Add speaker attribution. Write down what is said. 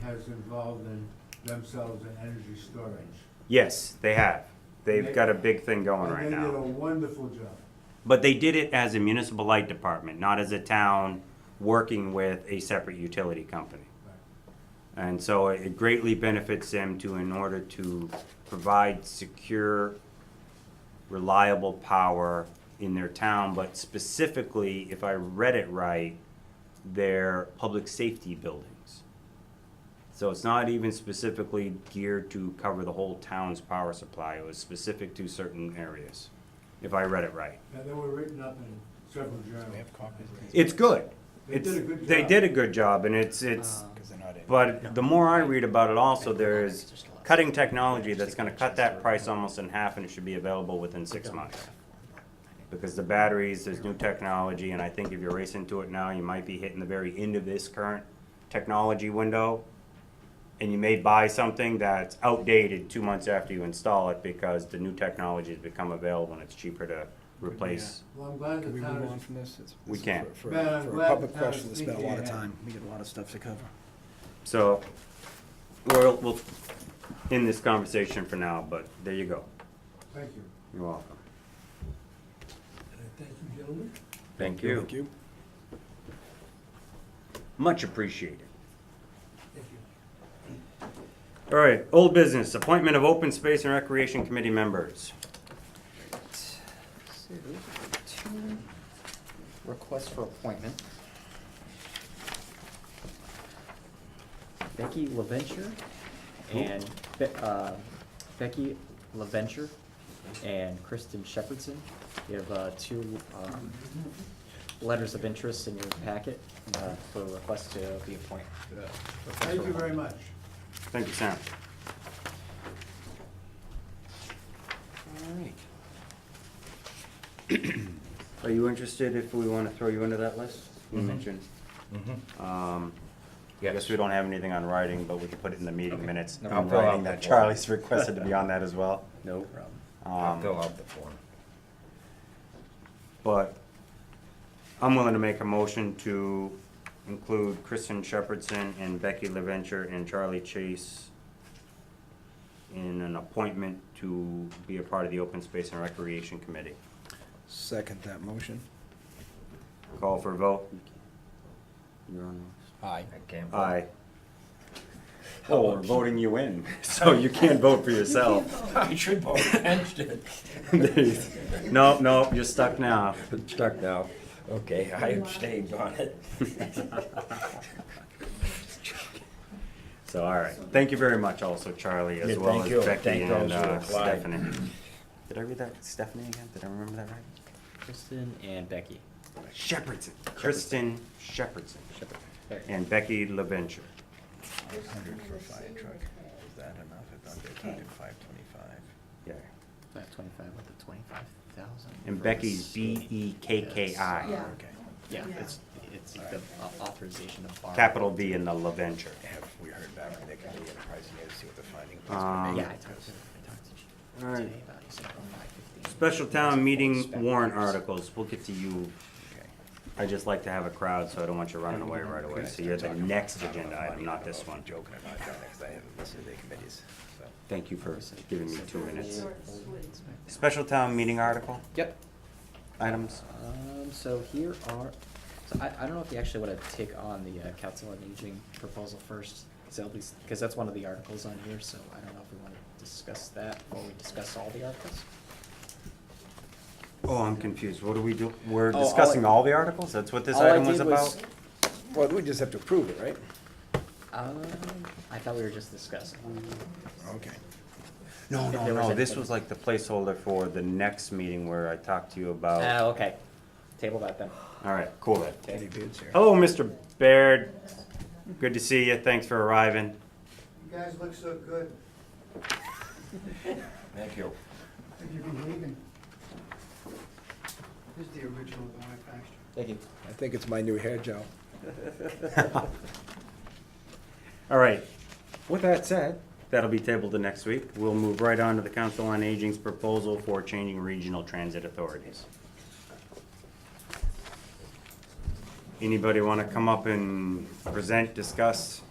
Speaker 1: has involved in themselves in energy storage.
Speaker 2: Yes, they have. They've got a big thing going
Speaker 1: And
Speaker 2: right
Speaker 1: They did a
Speaker 2: now.
Speaker 1: wonderful job.
Speaker 2: But they did it as a municipal light department, not as a town working with a separate utility company. And so it greatly benefits them to, in order to provide secure, reliable power in their town, but specifically, if I read it right, their public safety buildings. So it's not even specifically geared to cover the whole town's power supply, it was specific to certain areas, if I read it right.
Speaker 1: And they were written up in several journals.
Speaker 3: we have copies of these?
Speaker 2: It's good.
Speaker 1: They did a good
Speaker 2: It's-
Speaker 1: job.
Speaker 2: They did a good job, and it's, it's,
Speaker 3: Because they're not in.
Speaker 2: but the more I read about it also, there is
Speaker 4: Just a lot.
Speaker 2: cutting technology that's gonna cut that price almost in half and it should be available within six months. Because the batteries, there's new technology, and I think if you're racing to it now, you might be hitting the very end of this current technology window. And you may buy something that's outdated two months after you install it because the new technology has become available and it's cheaper to replace.
Speaker 1: Well, I'm glad
Speaker 3: Can
Speaker 1: the
Speaker 3: we
Speaker 1: town
Speaker 3: move
Speaker 1: is.
Speaker 3: on from this? It's-
Speaker 2: We
Speaker 3: this is
Speaker 2: can't.
Speaker 3: for- For
Speaker 1: Man, I'm
Speaker 3: for
Speaker 1: glad
Speaker 3: a public
Speaker 1: the town is
Speaker 3: question, we spent a
Speaker 1: thinking
Speaker 3: lot of
Speaker 1: ahead.
Speaker 3: time, we got a lot of stuff to cover.
Speaker 2: So, we'll, we'll end this conversation for now, but there you go.
Speaker 1: Thank you.
Speaker 2: You're welcome.
Speaker 3: Uh,
Speaker 1: Thank you, gentlemen.
Speaker 2: Thank you.
Speaker 3: Thank you.
Speaker 2: Much appreciated. All right, old business, appointment of open space and recreation committee members.
Speaker 4: So, two requests for appointment. Becky LaVenture and, Be- uh, Becky LaVenture and Kristen Shepherdson. You have, uh, two, um, letters of interest in your packet, uh, for a request to be appointed.
Speaker 1: Thank you very much.
Speaker 2: Thank you, Sam.
Speaker 4: All right.
Speaker 2: Are you interested if we want to throw you into that list? You mentioned. Um, I guess we don't have anything on writing, but we can put it in the meeting minutes.
Speaker 4: No,
Speaker 2: I'm
Speaker 5: I'll fill out
Speaker 2: writing
Speaker 5: the
Speaker 2: that
Speaker 5: form.
Speaker 2: Charlie's requested to be on that as well.
Speaker 4: No problem.
Speaker 5: I'll
Speaker 2: Um,
Speaker 5: fill out the form.
Speaker 2: But I'm willing to make a motion to include Kristen Shepherdson and Becky LaVenture and Charlie Chase in an appointment to be a part of the Open Space and Recreation Committee.
Speaker 3: Second that motion.
Speaker 2: Call for a vote. You're on
Speaker 5: Aye. I can't.
Speaker 2: the Aye. Oh, we're voting you in, so you can't vote for yourself.
Speaker 5: I should vote against it.
Speaker 2: Nope, nope, you're stuck now.
Speaker 5: Stuck now. Okay, I abstained on it.
Speaker 2: So, all right. Thank you very much also, Charlie, as
Speaker 5: Yeah,
Speaker 2: well
Speaker 5: thank
Speaker 2: as
Speaker 5: you.
Speaker 2: Becky
Speaker 5: Thank
Speaker 2: and
Speaker 5: those who
Speaker 2: uh,
Speaker 5: applied.
Speaker 2: Stephanie. Did I read that Stephanie again? Did I remember that right?
Speaker 4: Kristen and Becky.
Speaker 2: Shepherdson, Kristen Shepherdson,
Speaker 4: Shepherd. Becky.
Speaker 2: and Becky LaVenture.
Speaker 3: Hundred for fire truck, is that enough? If not, they're talking five twenty-five.
Speaker 2: Yeah.
Speaker 4: Not twenty-five, what, the twenty-five thousand?
Speaker 2: And Becky's B E K K I,
Speaker 6: Yeah.
Speaker 3: Okay,
Speaker 4: Yeah, it's, it's the au- authorization of borrow.
Speaker 2: capital B in the LaVenture.
Speaker 3: have we heard back from Nick and we get a price and see what the finding is?
Speaker 2: Um,
Speaker 4: Yeah, I talked to, I talked to Ch-
Speaker 2: All right.
Speaker 4: today about it, he said around 5:15.
Speaker 2: Special town meeting warrant
Speaker 4: Spec-
Speaker 2: articles. We'll get to you.
Speaker 3: Okay.
Speaker 2: I just like to have a crowd, so I don't want you running away right away. So you're the next agenda item, not this one.
Speaker 3: Joking or not, John, because I haven't listened to the committees, so.
Speaker 2: Thank you for giving me two minutes.
Speaker 6: Short, sweet.
Speaker 2: Special town meeting article
Speaker 4: Yep.
Speaker 2: items?
Speaker 4: Um, so here are, so I, I don't know if you actually wanna take on the uh, council on aging proposal first, cause at least, cause that's one of the articles on here, so I don't know if we wanna discuss that before we discuss all the articles.
Speaker 2: Oh, I'm confused. What do we do? We're
Speaker 4: Oh, all I-
Speaker 2: discussing all the articles? That's what this
Speaker 4: All I
Speaker 2: item was
Speaker 4: did was-
Speaker 2: about?
Speaker 3: Well, we just have to approve it, right?
Speaker 4: Um, I thought we were just discussing.
Speaker 3: Okay.
Speaker 2: No,
Speaker 4: If
Speaker 2: no,
Speaker 4: there was
Speaker 2: no, this
Speaker 4: anything.
Speaker 2: was like the placeholder for the next meeting where I talked to you
Speaker 4: Ah,
Speaker 2: about.
Speaker 4: okay, table that then.
Speaker 2: All right, cool then.
Speaker 3: Any bids here?
Speaker 2: Hello, Mr. Baird. Good to see you. Thanks for arriving.
Speaker 1: You guys look so good.
Speaker 5: Thank you.
Speaker 7: Have you been leaving? This is the original Bonifactor.
Speaker 4: Thank you.
Speaker 3: I think it's my new hair gel.
Speaker 2: All right. With that said, that'll be tabled to next week. We'll move right on to the Council on Aging's proposal for changing regional transit authorities. Anybody want to come up and present, discuss?